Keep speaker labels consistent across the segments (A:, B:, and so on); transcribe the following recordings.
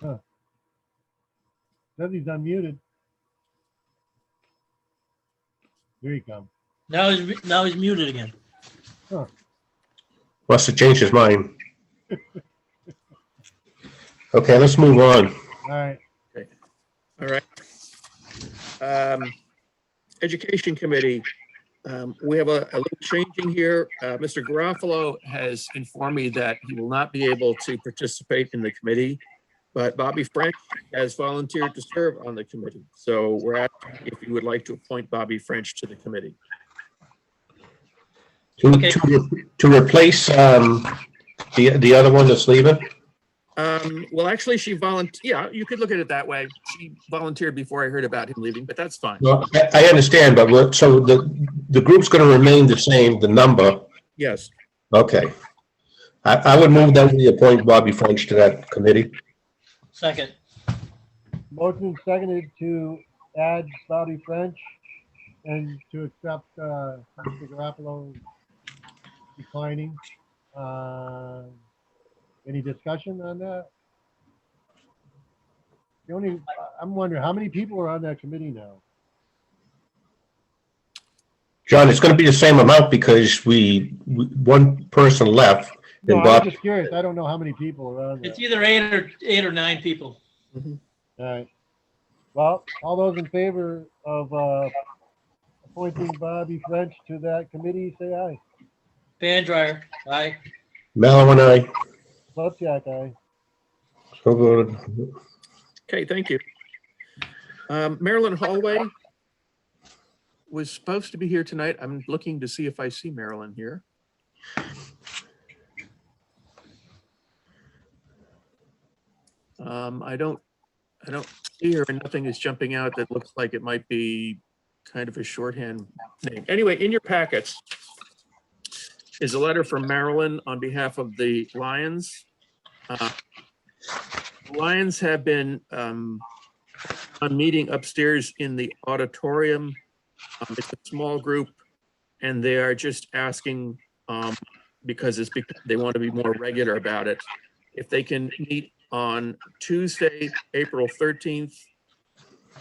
A: Huh. Says he's unmuted. Here he comes.
B: Now he's, now he's muted again.
C: Must have changed his mind. Okay, let's move on.
A: All right,
D: All right. Um, Education Committee, um, we have a, a little changing here. Uh, Mr. Garofalo has informed me that he will not be able to participate in the committee, but Bobby French has volunteered to serve on the committee. So we're asking if you would like to appoint Bobby French to the committee.
C: To,
B: Okay.
C: to, re- to replace, um, the, the other one that's leaving?
D: Um, well, actually, she volunteered, yeah, you could look at it that way. She volunteered before I heard about him leaving, but that's fine.
C: Well, I, I understand, but what, so the, the group's gonna remain the same, the number,
D: Yes,
C: okay. I, I would move that we appoint Bobby French to that committee.
B: Second.
A: motion seconded to add Bobby French and to accept, uh, Mr. Garofalo declining. Uh, Any discussion on that? The only, I- I'm wondering, how many people are on that committee now?
C: John, it's gonna be the same amount because we, we- one person left.
A: No,
C: And
A: I'm
C: Bob-
A: just curious. I don't know how many people are on there.
B: It's either eight or, eight or nine people.
A: All right. Well, all those in favor of uh, appointing Bobby French to that committee, say aye.
B: Fan dryer, aye.
C: Mallow and I,
A: Slapjack, aye.
C: so voted.
D: okay, thank you. Um, Marilyn Hallway was supposed to be here tonight. I'm looking to see if I see Marilyn here. Um, I don't, I don't see her and nothing is jumping out that looks like it might be kind of a shorthand name. Anyway, in your packets is a letter from Marilyn on behalf of the Lions. Uh, Lions have been um, on meeting upstairs in the auditorium. Um, It's a small group and they are just asking, um, because it's, bec- they want to be more regular about it. If they can meet on Tuesday, April 13th,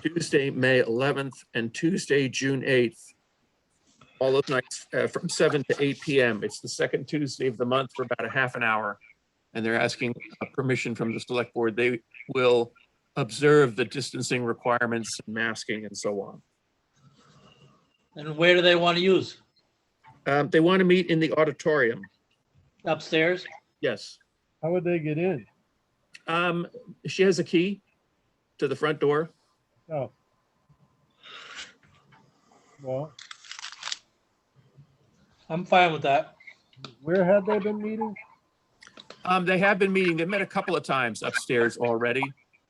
D: Tuesday, May 11th, and Tuesday, June 8th. All those nights uh, from 7 to 8 PM. It's the second Tuesday of the month for about a half an hour. And they're asking uh, permission from the select board, they will observe the distancing requirements, masking and so on.
B: And where do they want to use?
D: Um, they want to meet in the auditorium,
B: Upstairs?
D: yes.
A: How would they get in?
D: Um, she has a key to the front door.
A: Oh. Well,
B: I'm fine with that.
A: where had they been meeting?
D: Um, they have been meeting, they've met a couple of times upstairs already,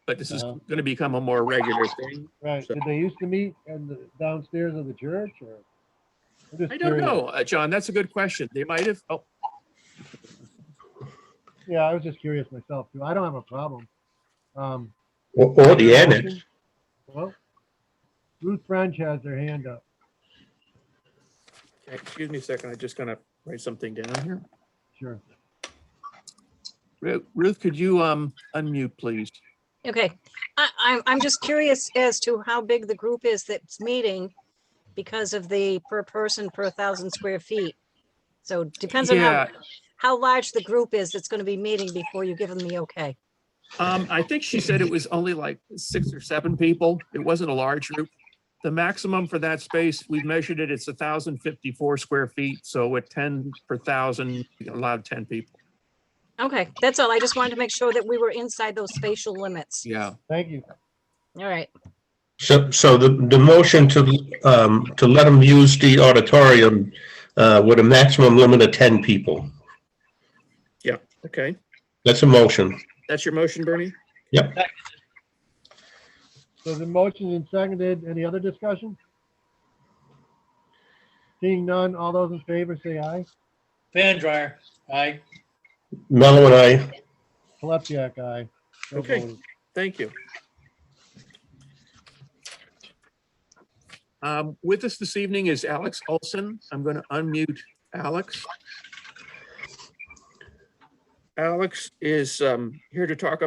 D: but this is
A: Uh-huh.
D: going to become a more regular thing.
A: Right, did they used to meet in the downstairs of the church or? I'm just
D: I don't
A: curious.
D: know, uh, John, that's a good question. They might have, oh,
A: Yeah, I was just curious myself too. I don't have a problem. Um,
C: Or, or the annex.
A: Well, Ruth French has their hand up.
D: excuse me a second, I'm just going to write something down here.
A: Sure.
D: Ru- Ruth, could you, um, unmute, please?
E: Okay, I, I'm, I'm just curious as to how big the group is that's meeting because of the per person per thousand square feet. So depends on how,
D: Yeah.
E: how large the group is that's going to be meeting before you give them the okay.
D: Um, I think she said it was only like six or seven people. It wasn't a large group. The maximum for that space, we've measured it, it's thousand fifty-four square feet, so at ten per thousand, you can allow ten people.
E: Okay, that's all. I just wanted to make sure that we were inside those spatial limits.
D: Yeah.
A: Thank you.
E: All right,
C: So, so the, the motion to, um, to let them use the auditorium, uh, with a maximum limit of ten people.
D: Okay,
C: That's a motion.
D: that's your motion, Bernie?
A: So the motion and seconded, any other discussion? Seeing none, all those in favor say aye.
B: Fan dryer, aye.
C: Mellow and I,
A: Kolesiak, aye. So
D: Okay.
A: voted.
D: Thank you. Um, with us this evening is Alex Olson. I'm going to unmute Alex. Alex is, um, here to talk